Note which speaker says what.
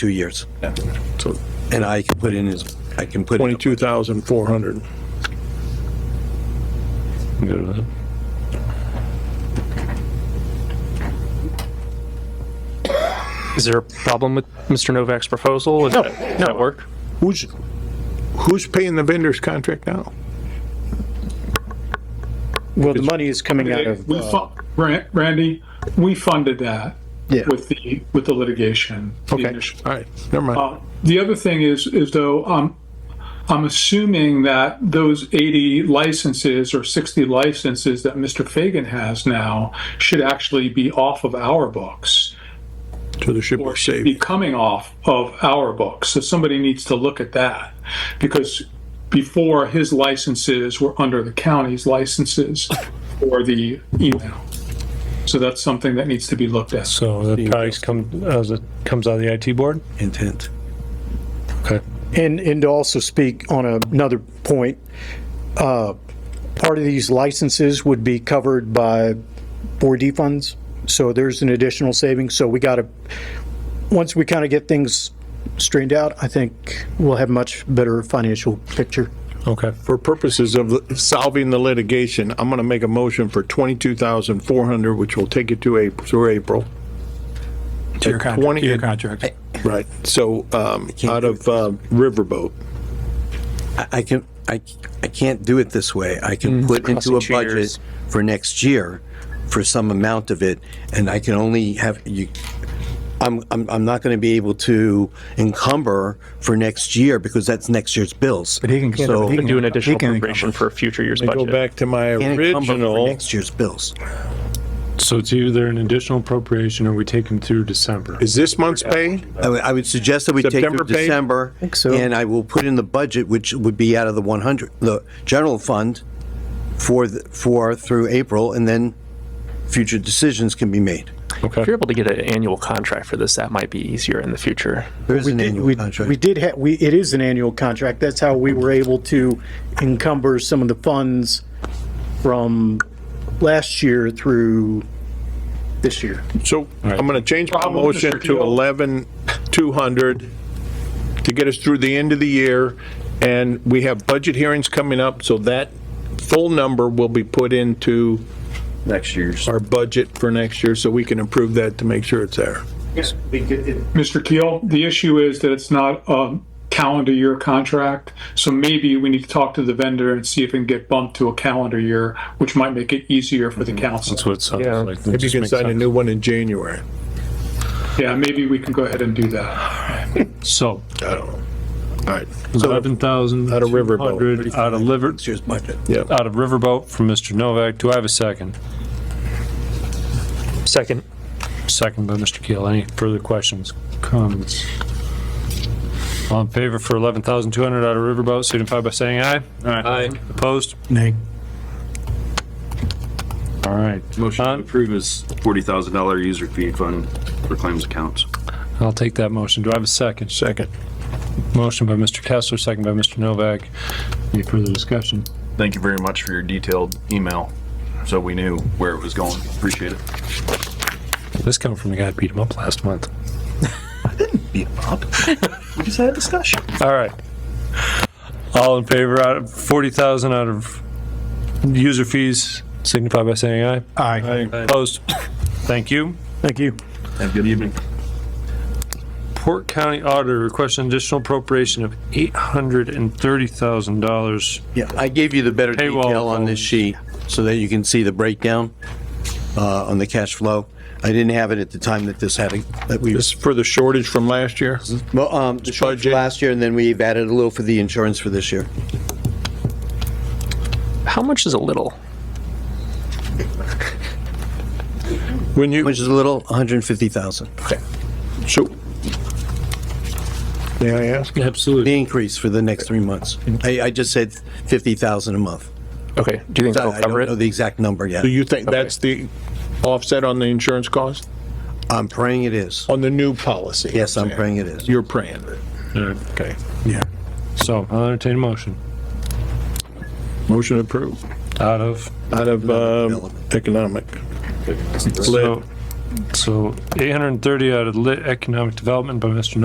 Speaker 1: two years.
Speaker 2: So
Speaker 1: And I can put in his, I can put. in-
Speaker 2: twenty-two thousand four hundred. Good with that.
Speaker 3: Is there a problem with Mr. Novak's proposal? Is
Speaker 2: No,
Speaker 3: that- Does that work?
Speaker 2: Who's, who's paying the vendor's contract now?
Speaker 4: Well, the money is coming out of,
Speaker 5: We
Speaker 4: uh,
Speaker 5: fu- Ran- Randy, we funded that
Speaker 4: yeah,
Speaker 5: with the, with the litigation. the
Speaker 2: Okay,
Speaker 5: initial-
Speaker 2: all right, never mind.
Speaker 5: Uh, The other thing is, is though, um, I'm assuming that those 80 licenses or 60 licenses that Mr. Fagan has now should actually be off of our books,
Speaker 2: To the ship
Speaker 5: or
Speaker 2: of
Speaker 5: should be
Speaker 2: saved.
Speaker 5: coming off of our books. So somebody needs to look at that, because before, his licenses were under the county's licenses or the email. So that's something that needs to be looked at.
Speaker 6: So that probably comes, as it comes out of the IT board?
Speaker 1: Intent.
Speaker 6: Okay.
Speaker 4: and, and to also speak on another point, uh, part of these licenses would be covered by 4D funds, so there's an additional savings, so we gotta, once we kind of get things straightened out, I think we'll have much better financial picture.
Speaker 6: Okay.
Speaker 2: For purposes of solving the litigation, I'm gonna make a motion for twenty-two thousand four hundred, which will take it to April, through April.
Speaker 1: To your contract.
Speaker 2: 20
Speaker 1: Your
Speaker 6: Contract.
Speaker 2: Right, so, um, out of, uh, Riverboat.
Speaker 1: I I can, I, I can't do it this way. I
Speaker 2: Mm-hmm.
Speaker 1: can put into
Speaker 3: Crossing
Speaker 1: a budget
Speaker 3: fingers.
Speaker 1: for next year for some amount of it, and I can only have, you, I'm, I'm, I'm not gonna be able to encumber for next year because that's next year's bills. But he can. So,
Speaker 3: And do an additional
Speaker 7: can
Speaker 3: appropriation for a future year's
Speaker 2: Go
Speaker 3: budget.
Speaker 2: back to my
Speaker 1: can't encumber for
Speaker 2: original,
Speaker 1: next year's bills.
Speaker 6: So it's either an additional appropriation or we take them through December.
Speaker 2: is this month's pay?
Speaker 1: I would, I would suggest that we take
Speaker 2: September
Speaker 1: through
Speaker 2: pay?
Speaker 1: December.
Speaker 4: so.
Speaker 1: And I will put in the budget, which would be out of the 100, the general fund for, the- for through April, and then future decisions can be made.
Speaker 3: If you're able to get an annual contract for this, that might be easier in the future.
Speaker 1: There is an
Speaker 4: did-
Speaker 1: annual
Speaker 4: we-
Speaker 1: contract.
Speaker 4: We did have, we, it is an annual contract. That's how we were able to encumber some of the funds from last year through this year.
Speaker 2: So I'm gonna change my
Speaker 5: Problem,
Speaker 2: motion
Speaker 5: Mr.
Speaker 2: to
Speaker 5: Keel.
Speaker 2: eleven two hundred to get us through the end of the year. And we have budget hearings coming up, so that full number will be put into
Speaker 8: next year's.
Speaker 2: our budget for next year, so we can improve that to make sure it's there.
Speaker 5: Mr. Keel, the issue is that it's not a calendar year contract, so maybe we need to talk to the vendor and see if it can get bumped to a calendar year, which might make it easier for the council.
Speaker 6: Mm-hmm. That's what it sounds
Speaker 3: Yeah.
Speaker 6: like. It
Speaker 2: Maybe you
Speaker 6: just
Speaker 2: can
Speaker 6: makes
Speaker 2: sign a
Speaker 6: sense.
Speaker 2: new one in January.
Speaker 5: Yeah, maybe we can go ahead and do that.
Speaker 6: So
Speaker 2: I don't know. All right,
Speaker 6: eleven thousand.
Speaker 2: Out of Riverboat.
Speaker 6: Out of liver,
Speaker 1: Next year's budget.
Speaker 6: out of Riverboat from Mr. Novak. Do I have a second?
Speaker 3: Second.
Speaker 6: Second by Mr. Keel. Any further questions, comments? All in favor for eleven thousand two hundred out of Riverboat, signify by saying aye. Aye. Opposed?
Speaker 4: Nay.
Speaker 6: All right.
Speaker 8: Motion to
Speaker 6: Uh,
Speaker 8: approve is $40,000 user fee fund for claims accounts.
Speaker 6: I'll take that motion. Do I have a second?
Speaker 2: second.
Speaker 6: Motion by Mr. Kessler, second by Mr. Novak. Any further discussion?
Speaker 8: Thank you very much for your detailed email, so we knew where it was going. Appreciate it.
Speaker 6: This coming from the guy that beat him up last month.
Speaker 8: We just had a discussion.
Speaker 6: All right. All in favor out of 40,000 out of user fees, signify by saying aye.
Speaker 4: Aye.
Speaker 6: Opposed? Thank you.
Speaker 4: Thank you.
Speaker 8: Have a good evening.
Speaker 6: Port County Auditor requests an additional appropriation of $830,000.
Speaker 1: Yeah, I gave you the better
Speaker 6: Paywall
Speaker 1: detail on this
Speaker 6: phones.
Speaker 1: sheet so that you can see the breakdown uh, on the cash flow. I didn't have it at the time that this had, that we,
Speaker 2: This is for the shortage from last year?
Speaker 1: well, um, the short for
Speaker 2: Budget.
Speaker 1: last year, and then we've added a little for the insurance for this year.
Speaker 3: How much is a little?
Speaker 2: When you,
Speaker 1: Which is a little, 150,000.
Speaker 2: so. May I ask?
Speaker 6: Absolutely.
Speaker 1: The increase for the next three months. I, I just said 50,000 a month.
Speaker 3: Okay, do you think that'll
Speaker 1: I
Speaker 3: cover
Speaker 1: don't know
Speaker 3: it?
Speaker 1: the exact number yet.
Speaker 2: Do you think that's the offset on the insurance cost?
Speaker 1: I'm praying it is.
Speaker 2: On the new policy?
Speaker 1: Yes, I'm praying it is.
Speaker 2: You're praying. Okay.
Speaker 1: Yeah.
Speaker 6: So I'll entertain a motion
Speaker 2: Motion approved.
Speaker 6: out of,
Speaker 2: Out of uh,
Speaker 1: Development.
Speaker 2: economic. Lit.
Speaker 6: so so 830 out of lit economic development by Mr.